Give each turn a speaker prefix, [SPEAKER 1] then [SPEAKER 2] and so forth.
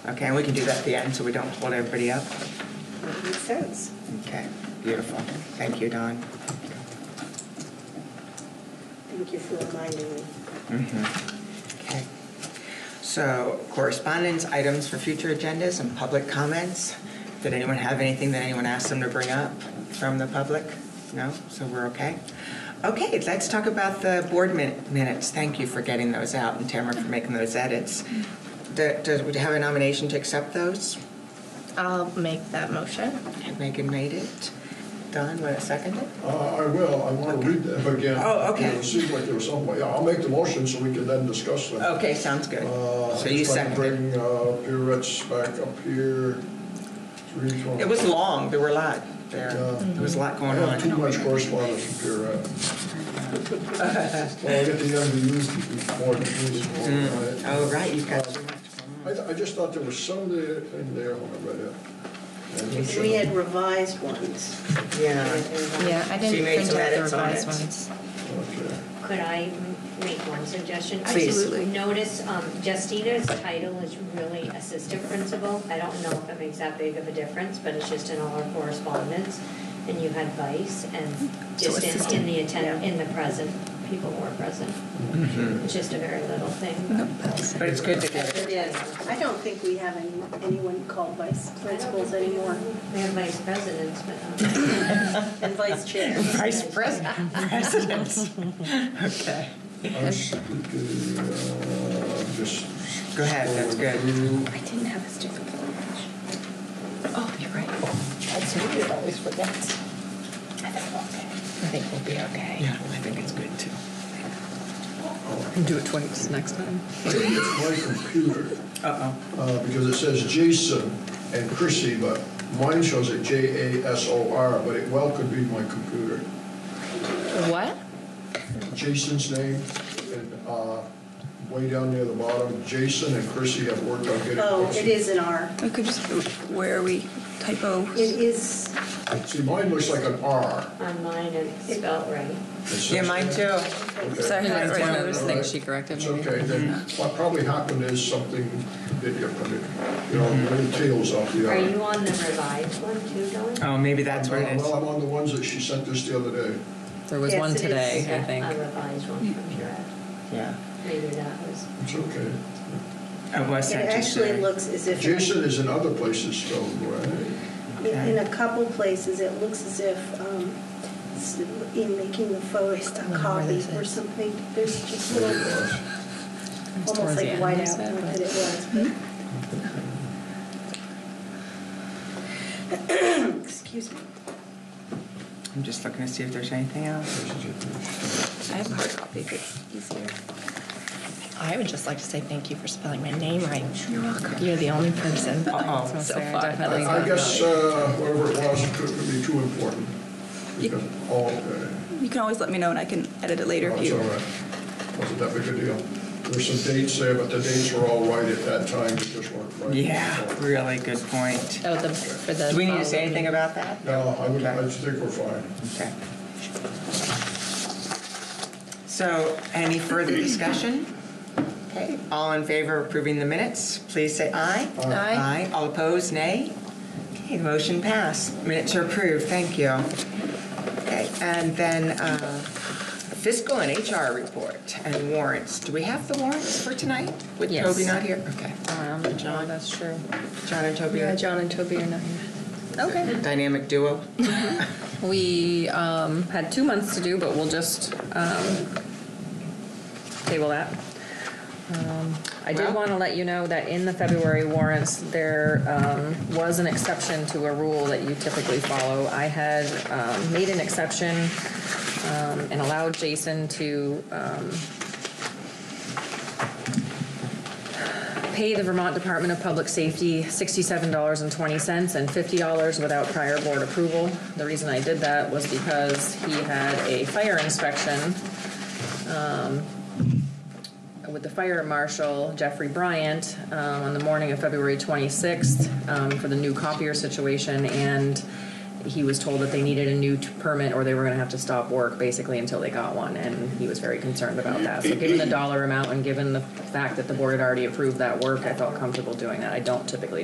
[SPEAKER 1] Okay, and we can do that at the end so we don't hold everybody up.
[SPEAKER 2] Makes sense.
[SPEAKER 1] Okay, beautiful. Thank you, Don.
[SPEAKER 2] Thank you for reminding me.
[SPEAKER 1] Okay. So correspondence, items for future agendas, and public comments. Did anyone have anything that anyone asked them to bring up from the public? No? So we're okay? Okay, let's talk about the board min- minutes. Thank you for getting those out and Tamara for making those edits. Do- Does, would you have a nomination to accept those?
[SPEAKER 3] I'll make that motion.
[SPEAKER 1] Megan made it. Don, want to second it?
[SPEAKER 4] Uh, I will, I want to read them again.
[SPEAKER 1] Oh, okay.
[SPEAKER 4] It seems like there was some way, yeah, I'll make the motion so we can then discuss them.
[SPEAKER 1] Okay, sounds good.
[SPEAKER 4] Uh,
[SPEAKER 1] So you
[SPEAKER 4] if I can
[SPEAKER 1] seconded.
[SPEAKER 4] Bring uh, Peter Ritz back up here. Three twenty-
[SPEAKER 1] It was long, there were a lot there.
[SPEAKER 4] Yeah.
[SPEAKER 1] There was a lot
[SPEAKER 4] I
[SPEAKER 1] going
[SPEAKER 4] have too
[SPEAKER 1] on.
[SPEAKER 4] much correspondence from Peter Ritz. Well, I get the end to use before the meeting.
[SPEAKER 1] Oh, right, you've got
[SPEAKER 4] Uh,
[SPEAKER 1] too much.
[SPEAKER 4] I, th- I just thought there was some there, in there when I read it. And it. should-
[SPEAKER 2] We had revised ones.
[SPEAKER 1] Yeah.
[SPEAKER 3] Yeah, I
[SPEAKER 1] She
[SPEAKER 3] didn't
[SPEAKER 1] made
[SPEAKER 3] print
[SPEAKER 1] some
[SPEAKER 3] out the
[SPEAKER 1] edits on
[SPEAKER 3] revised
[SPEAKER 1] it.
[SPEAKER 3] ones.
[SPEAKER 4] Okay.
[SPEAKER 5] Could I m- make one suggestion?
[SPEAKER 1] Please.
[SPEAKER 5] I just noticed um, Justina's title is really assistant principal. I don't know if it makes that big of a difference, but it's just in all our correspondence. And you had vice and
[SPEAKER 3] So
[SPEAKER 5] just in- in
[SPEAKER 3] assistant,
[SPEAKER 5] the attend, in the present, people were present. It's just a very little thing.
[SPEAKER 1] But it's good to get it.
[SPEAKER 2] It is. I don't think we have any, anyone called vice principals anymore,
[SPEAKER 5] We have vice presidents, but. um,
[SPEAKER 2] and vice chair.
[SPEAKER 1] Vice president, presidents. Okay.
[SPEAKER 4] I was, uh, just.
[SPEAKER 1] Go ahead, that's good.
[SPEAKER 4] scrolling
[SPEAKER 3] I didn't have a stupid language. Oh, you're right. That's me that always forgets. I think we'll be okay.
[SPEAKER 1] Yeah, I think it's good too.
[SPEAKER 6] And do it twice next time.
[SPEAKER 4] through. I think it's my computer.
[SPEAKER 1] Uh-oh.
[SPEAKER 4] uh, because it says Jason and Chrissy, but mine shows it J-A-S-O-R, but it well could be my computer.
[SPEAKER 3] What?
[SPEAKER 4] Jason's name, and uh, way down near the bottom, Jason and Chrissy have worked on getting.
[SPEAKER 2] Oh, it is an R.
[SPEAKER 6] We could just, where are we? Typo.
[SPEAKER 2] It is,
[SPEAKER 4] See, mine looks like an R.
[SPEAKER 5] On mine, it's spelled right.
[SPEAKER 4] It says-
[SPEAKER 1] Yeah, mine too.
[SPEAKER 4] Okay.
[SPEAKER 6] Sorry,
[SPEAKER 3] Yeah,
[SPEAKER 6] that's
[SPEAKER 3] it's
[SPEAKER 6] one
[SPEAKER 3] one
[SPEAKER 6] of
[SPEAKER 3] of
[SPEAKER 6] those
[SPEAKER 4] All
[SPEAKER 6] things
[SPEAKER 4] right.
[SPEAKER 6] she corrected.
[SPEAKER 4] It's
[SPEAKER 6] maybe.
[SPEAKER 4] okay, then, what probably happened is something did get, you know, little tails off the R.
[SPEAKER 5] Are you on the revised one too, Dawn?
[SPEAKER 1] Oh, maybe that's what it is.
[SPEAKER 4] Well, I'm on the ones that she sent us the other day.
[SPEAKER 6] There was
[SPEAKER 2] Yes,
[SPEAKER 6] one
[SPEAKER 2] it is.
[SPEAKER 6] today, I
[SPEAKER 5] Yeah, A
[SPEAKER 6] think.
[SPEAKER 5] revised one from Pura.
[SPEAKER 1] Yeah.
[SPEAKER 5] Maybe that was.
[SPEAKER 4] It's okay.
[SPEAKER 1] It was
[SPEAKER 2] it
[SPEAKER 1] sent to
[SPEAKER 2] actually
[SPEAKER 1] Sherry.
[SPEAKER 2] looks as if,
[SPEAKER 4] Jason is in other places spelled right.
[SPEAKER 2] in- in a couple places, it looks as if, um, s- in making the forest
[SPEAKER 3] I
[SPEAKER 2] a
[SPEAKER 3] wonder where
[SPEAKER 2] copy
[SPEAKER 3] this
[SPEAKER 2] or
[SPEAKER 3] is.
[SPEAKER 2] something, there's just
[SPEAKER 4] There
[SPEAKER 2] little,
[SPEAKER 4] it was.
[SPEAKER 6] It was towards
[SPEAKER 2] almost
[SPEAKER 6] the
[SPEAKER 2] like
[SPEAKER 6] end,
[SPEAKER 2] whiteout,
[SPEAKER 6] was it?
[SPEAKER 2] not that it was, but. Excuse me.
[SPEAKER 1] I'm just looking to see if there's anything else.
[SPEAKER 3] I have a hard copy if it's easier. I would just like to say thank you for spelling my name right. You're welcome. You're the only person
[SPEAKER 1] Uh-oh.
[SPEAKER 3] so
[SPEAKER 6] Sarah
[SPEAKER 3] far.
[SPEAKER 6] definitely
[SPEAKER 4] I I guess uh, whatever it was, it couldn't be too important. Because, oh, okay.
[SPEAKER 6] You can always let me know and I can edit it later if
[SPEAKER 4] That's all
[SPEAKER 6] you.
[SPEAKER 4] right. Wasn't that big a deal. There's some dates there, but the dates were all right at that time, they just weren't right.
[SPEAKER 1] Yeah, really good point.
[SPEAKER 3] Oh, the, for the.
[SPEAKER 1] Do we need to say anything about that?
[SPEAKER 4] No, I would, I
[SPEAKER 1] Okay.
[SPEAKER 4] think we're fine.
[SPEAKER 1] Okay. So any further discussion? Okay, all in favor of approving the minutes, please say aye.
[SPEAKER 3] Aye.
[SPEAKER 1] Aye, all opposed, nay? Okay, motion passed, minutes are approved, thank you. Okay, and then uh, fiscal and HR report and warrants. Do we have the warrants for tonight? With
[SPEAKER 3] Yes.
[SPEAKER 1] Toby not here? Okay,
[SPEAKER 3] Um, John, that's true.
[SPEAKER 1] John and Toby
[SPEAKER 6] Yeah,
[SPEAKER 1] are
[SPEAKER 6] John and Toby are not here. Okay.
[SPEAKER 1] dynamic duo.
[SPEAKER 6] We um, had two months to do, but we'll just um, table that. Um, I did
[SPEAKER 1] Well-
[SPEAKER 6] want to let you know that in the February warrants, there um, was an exception to a rule that you typically follow. I had um, made an exception um, and allowed Jason to um, pay the Vermont Department of Public Safety $67.20 and $50 without prior board approval. The reason I did that was because he had a fire inspection with the fire marshal, Jeffrey Bryant, um, on the morning of February 26th um, for the new copier situation, and he was told that they needed a new t- permit or they were going to have to stop work basically until they got one, and he was very concerned about that. So, given the dollar amount and given the fact that the board had already approved that work, I felt comfortable doing that. I don't typically